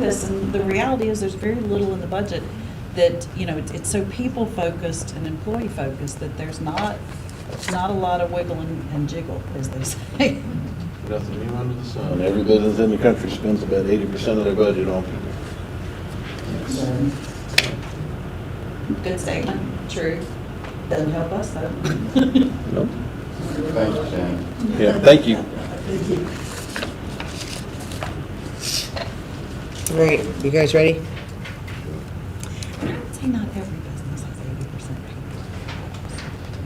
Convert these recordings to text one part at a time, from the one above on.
this, and the reality is, there's very little in the budget that, you know, it's- it's so people-focused and employee-focused that there's not, not a lot of wiggle and and jiggle, as they say. Nothing new under the sun. And every business in the country spends about eighty percent of their budget on people. Good statement, true. Doesn't help us, though. Nope. Thank you, Shane. Yeah, thank you. All right, you guys ready? I would say not every business has eighty percent people.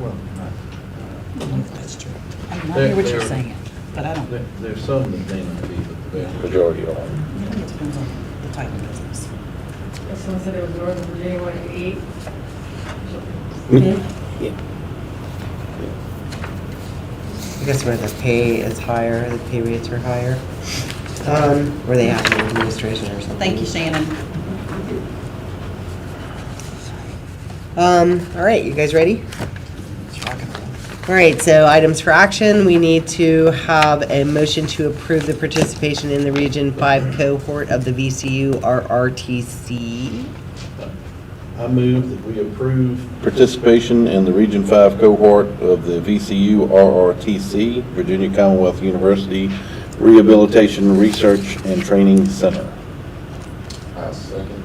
Well, not- That's true. I mean, I hear what you're There- there- saying, but I don't, there- There's some that may not be, but the vast Majority are. I think it depends on the type of business. Someone said it was Northern Virginia, what, eight? I guess where the pay is higher, the pay rates are higher. Um, where they have an administration or something. Thank you, Shannon. Um, all right, you guys ready? All right, so items for action, we need to have a motion to approve the participation in the Region Five cohort of the VCU RRTC. I move that we approve Participation in the Region Five cohort of the VCU RRTC, Virginia Commonwealth University Rehabilitation Research and Training Center. I second.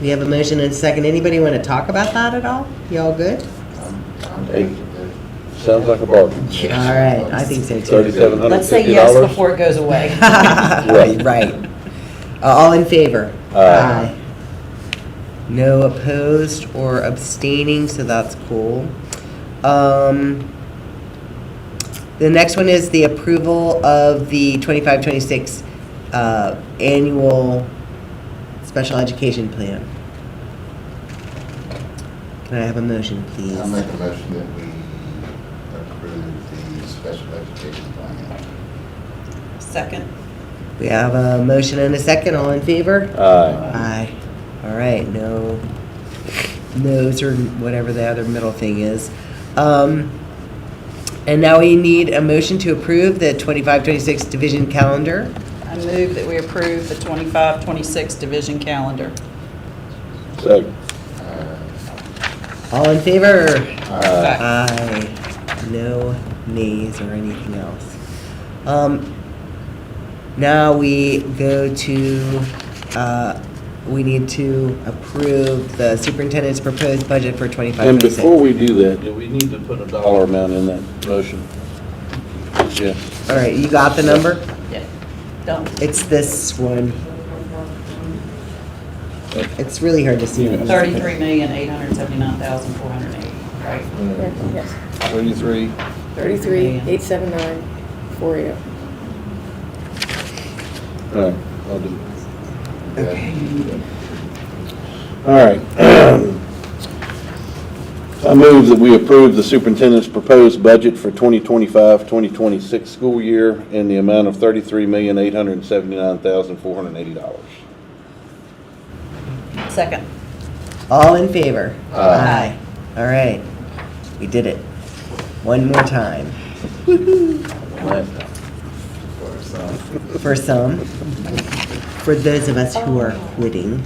We have a motion and a second. Anybody want to talk about that at all? Y'all good? Hey, sounds like a bargain. All right, I think so too. Thirty-seven hundred Let's say fifty yes dollars. before it goes away. Right, right. Uh, All in favor? Aye. No opposed or abstaining, so that's cool. Um, The next one is the approval of the 25-26 uh, annual special education plan. Can I have a motion, please? I'll make a motion that we approve the special education plan. Second. We have a motion and a second. All in favor? Aye. Aye. All right, no, no's or whatever the other middle thing is. Um, and now we need a motion to approve the twenty-five, twenty-six division calendar. I move that we approve the 25-26 division calendar. Second. Uh, All in favor? Aye. Uh-huh. Aye. No nays or anything else. Um, now we go to, uh, we need to approve the superintendent's proposed budget for twenty-five, And twenty-six. before we do that, Do we need to put a dollar dollar amount? amount in that motion. Yeah, All right, you got the number? Yeah. Don't. It's this one. It's really hard to see. Thirty-three million, eight hundred seventy-nine thousand, four hundred eighty, right? Yes, thirty-three. 33, million. 879, 40. All right, I'll do it. All right. I move that we approve the superintendent's proposed budget for 2025-2026 school year in the amount of $33,879,480. Second. All in favor? Aye. Aye. All right, we did it. One more time. For some, for those of us who are quitting.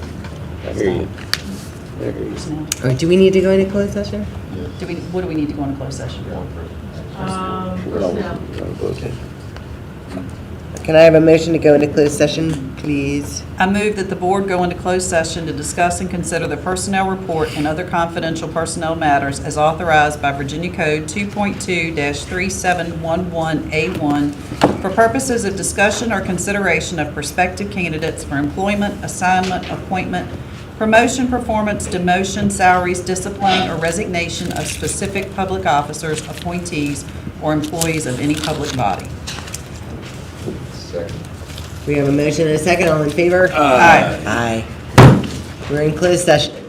I hear you. I hear you. Now, Or do we need to go into closed session? Do we, what do we need to go into closed session for? oh. Um, No, we're personnel. gonna close it. Can I have a motion to go into closed session, please? I move that the board go into closed session to discuss and consider the personnel report and other confidential personnel matters as authorized by Virginia Code 2.2-3711A1 for purposes of discussion or consideration of prospective candidates for employment, assignment, appointment, promotion, performance, demotion, salaries, discipline, or resignation of specific public officers, appointees, or employees of any public body. Second. We have a motion and a second, all in favor? Aye. Aye. We're in closed session.